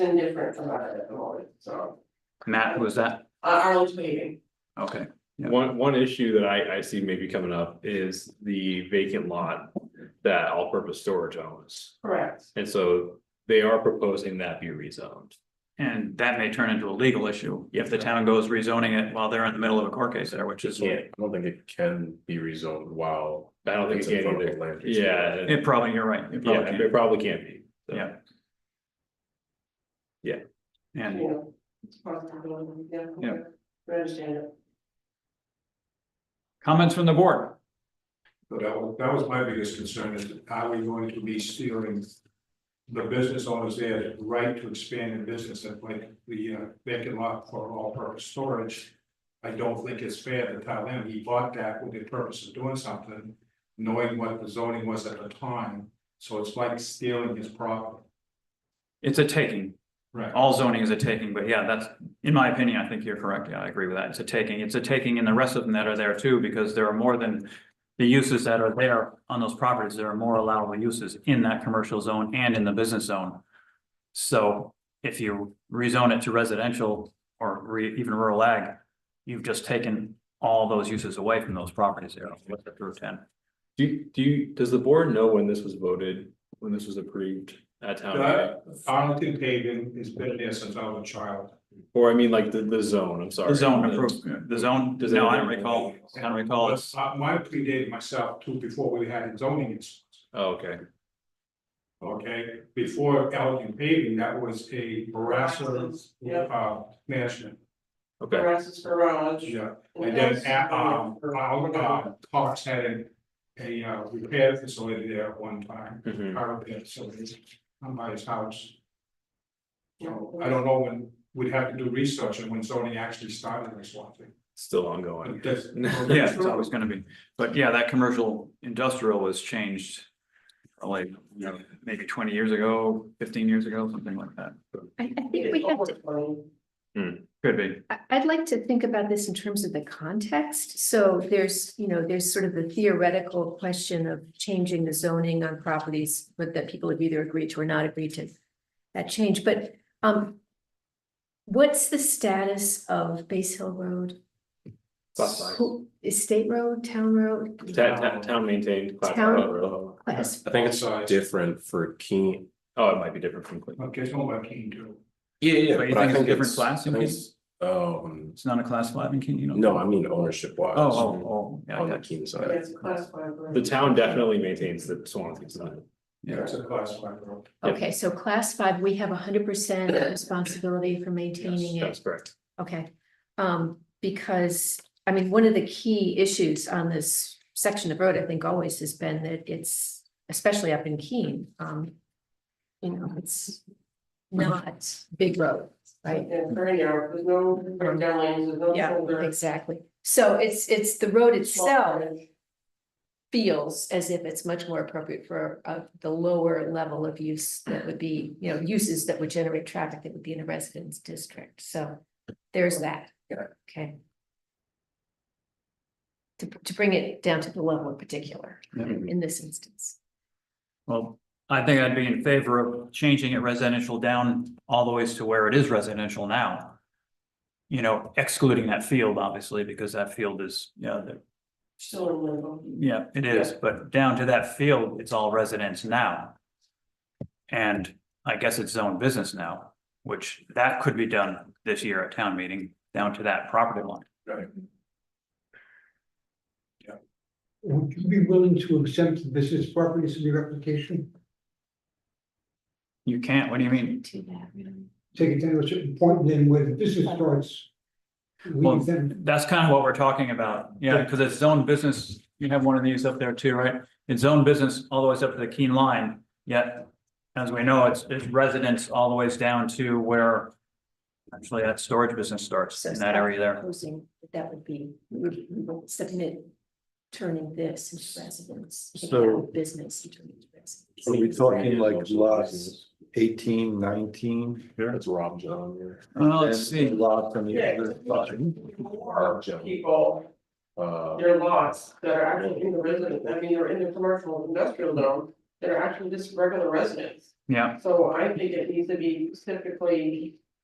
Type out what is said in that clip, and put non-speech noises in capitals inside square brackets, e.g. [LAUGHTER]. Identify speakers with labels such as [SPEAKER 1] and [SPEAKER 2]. [SPEAKER 1] been different from that at the moment, so,
[SPEAKER 2] Matt, who was that?
[SPEAKER 1] uh, Arnold's waving.
[SPEAKER 2] Okay, Yeah.
[SPEAKER 3] One, one issue that I, I see maybe coming up is the vacant lot that all-purpose storage owns.
[SPEAKER 1] Correct.
[SPEAKER 3] And so they are proposing that be rezoned.
[SPEAKER 2] and that may turn into a legal issue if the town goes rezoning it while they're in the middle of a court case there, which is.
[SPEAKER 3] Yeah.
[SPEAKER 4] I don't think it can be rezoned while.
[SPEAKER 3] I don't think
[SPEAKER 4] it's
[SPEAKER 3] it
[SPEAKER 4] in
[SPEAKER 3] can
[SPEAKER 4] front of
[SPEAKER 3] either.
[SPEAKER 4] a land use
[SPEAKER 3] Yeah,
[SPEAKER 4] board.
[SPEAKER 2] It probably, you're right. it
[SPEAKER 3] yeah,
[SPEAKER 2] probably
[SPEAKER 3] it probably can't be. so.
[SPEAKER 2] Yeah. can.
[SPEAKER 1] You
[SPEAKER 2] And
[SPEAKER 1] know, it's possible, yeah.
[SPEAKER 2] Yeah.
[SPEAKER 1] I understand it.
[SPEAKER 2] comments from the board?
[SPEAKER 5] So that was, that was my biggest concern is how are we going to be stealing the business owners their right to expand their business and like the uh, vacant lot for all purpose storage. I don't think it's fair to tell him he bought that with the purpose of doing something, knowing what the zoning was at the time. So it's like stealing his property.
[SPEAKER 2] It's a taking.
[SPEAKER 5] Right.
[SPEAKER 2] All zoning is a taking, but yeah, that's, in my opinion, I think you're correct. Yeah, I agree with that. It's a taking. It's a taking and the rest of them that are there too, because there are more than. The uses that are there on those properties, there are more allowable uses in that commercial zone and in the business zone. So if you rezone it to residential or re, even rural ag, you've just taken all those uses away from those properties there. with the Route ten.
[SPEAKER 3] Do, you- do you, does the board know when this was voted, when this was approved at town?
[SPEAKER 2] Uh,
[SPEAKER 3] meeting?
[SPEAKER 5] That Arlington paving has been there since I was a child.
[SPEAKER 3] Or I mean, like the, the zone, I'm sorry.
[SPEAKER 2] The zone approved, the zone,
[SPEAKER 3] Does
[SPEAKER 2] no, I don't
[SPEAKER 3] anyone-
[SPEAKER 2] recall, I don't recall. It's,
[SPEAKER 5] Uh, Mine predated myself too, before we had zoning issues.
[SPEAKER 3] Oh, Okay,
[SPEAKER 5] Okay, before Elgin paving, that was a harasser,
[SPEAKER 1] Yep.
[SPEAKER 5] uh, management,
[SPEAKER 3] okay,
[SPEAKER 1] Grass's garage.
[SPEAKER 5] yeah. And then, at, um, around, uh, Cox had a, a uh, repair facility there at one time,
[SPEAKER 3] Mhm.
[SPEAKER 5] car repair facility, on by his house. So I don't know when, we'd have to do research on when zoning actually started this one thing.
[SPEAKER 3] still ongoing.
[SPEAKER 5] That's-
[SPEAKER 2] [LAUGHS] yeah, it's always gonna be, but yeah, that commercial industrial was changed. Like, you know, maybe twenty years ago, fifteen years ago, something like that,
[SPEAKER 6] I, I think we have to,
[SPEAKER 2] could be,
[SPEAKER 6] I, I'd like to think about this in terms of the context. So there's, you know, there's sort of the theoretical question of changing the zoning on properties, but that people have either agreed to or not agreed to that change, but, um, what's the status of Base Hill Road?
[SPEAKER 3] Class five.
[SPEAKER 6] Who- Is state road, town road?
[SPEAKER 3] Town, town- town maintained. class
[SPEAKER 6] Town-
[SPEAKER 3] five road.
[SPEAKER 6] Class,
[SPEAKER 4] I think it's
[SPEAKER 5] Size.
[SPEAKER 4] different for Keene.
[SPEAKER 3] Oh, it might be different from Cleveland.
[SPEAKER 5] Okay, it's not what I came to.
[SPEAKER 4] Yeah, yeah.
[SPEAKER 2] But you
[SPEAKER 4] but I
[SPEAKER 2] think it's different
[SPEAKER 4] it's-
[SPEAKER 2] class in
[SPEAKER 4] I think it's, Um,
[SPEAKER 2] it's not a class five in Keene, you know?
[SPEAKER 4] no, I mean ownership
[SPEAKER 2] Oh,
[SPEAKER 4] wise.
[SPEAKER 2] oh, oh, yeah,
[SPEAKER 4] On the
[SPEAKER 2] yeah,
[SPEAKER 4] Keene side.
[SPEAKER 1] That's classified. right?
[SPEAKER 3] The town definitely maintains the Swansea sign.
[SPEAKER 2] yeah,
[SPEAKER 5] That's a class five road.
[SPEAKER 3] Yep.
[SPEAKER 6] okay, so class five, we have hundred
[SPEAKER 3] [COUGHS]
[SPEAKER 6] percent responsibility for maintaining it.
[SPEAKER 3] That's correct.
[SPEAKER 6] Okay, um, because, I mean, one of the key issues on this section of road, I think always has been that it's, especially up in Keene, um. You know, it's not big road, right?
[SPEAKER 1] Yeah, very narrow, there's no, there's no lanes, there's no
[SPEAKER 6] Yeah,
[SPEAKER 1] shoulder.
[SPEAKER 6] exactly. So it's, it's the road
[SPEAKER 1] small
[SPEAKER 6] itself
[SPEAKER 1] frontage.
[SPEAKER 6] feels as if it's much more appropriate for, uh, the lower level of use that would be, you know, uses that would generate traffic that would be in a residence district, so there's that. Okay. To, to bring it down to the level in particular,
[SPEAKER 2] Yeah.
[SPEAKER 6] in this instance.
[SPEAKER 2] well, I think I'd be in favor of changing it residential down all the ways to where it is residential now. You know, excluding that field, obviously, because that field is, you know, the
[SPEAKER 1] Still in limbo.
[SPEAKER 2] Yeah, it is, but down to that field, it's all residents now. And I guess it's zone business now, which that could be done this year at town meeting, down to that property line.
[SPEAKER 7] Would you be willing to exempt the business properties in your application?
[SPEAKER 2] You can't, what do you mean?
[SPEAKER 6] To that, really.
[SPEAKER 7] Take it down to a certain point, and then where the business starts.
[SPEAKER 2] Well,
[SPEAKER 7] Leave them,
[SPEAKER 2] That's kind of what we're talking about, yeah, because it's zone business, you have one of these up there too, right? It's zone business all the way up to the Keene line, yet, as we know, it's, it's residents all the ways down to where actually that storage business starts in that area there.
[SPEAKER 6] Proposing that that would be, we would we would submit turning this into residence. taking out
[SPEAKER 8] So-
[SPEAKER 6] Business and turning it into residence.
[SPEAKER 8] Are we talking like lots eighteen, nineteen?
[SPEAKER 4] That's Rob John here.
[SPEAKER 2] Well, let's
[SPEAKER 8] And
[SPEAKER 2] see,
[SPEAKER 8] Lots on the
[SPEAKER 1] Yeah.
[SPEAKER 8] other side.
[SPEAKER 1] More
[SPEAKER 4] Joe.
[SPEAKER 1] people,
[SPEAKER 4] Uh,
[SPEAKER 1] there are lots that are actually in the resident, I mean, they're in the commercial industrial zone, that are actually just regular residents.
[SPEAKER 2] yeah,
[SPEAKER 1] So I think it needs to be specifically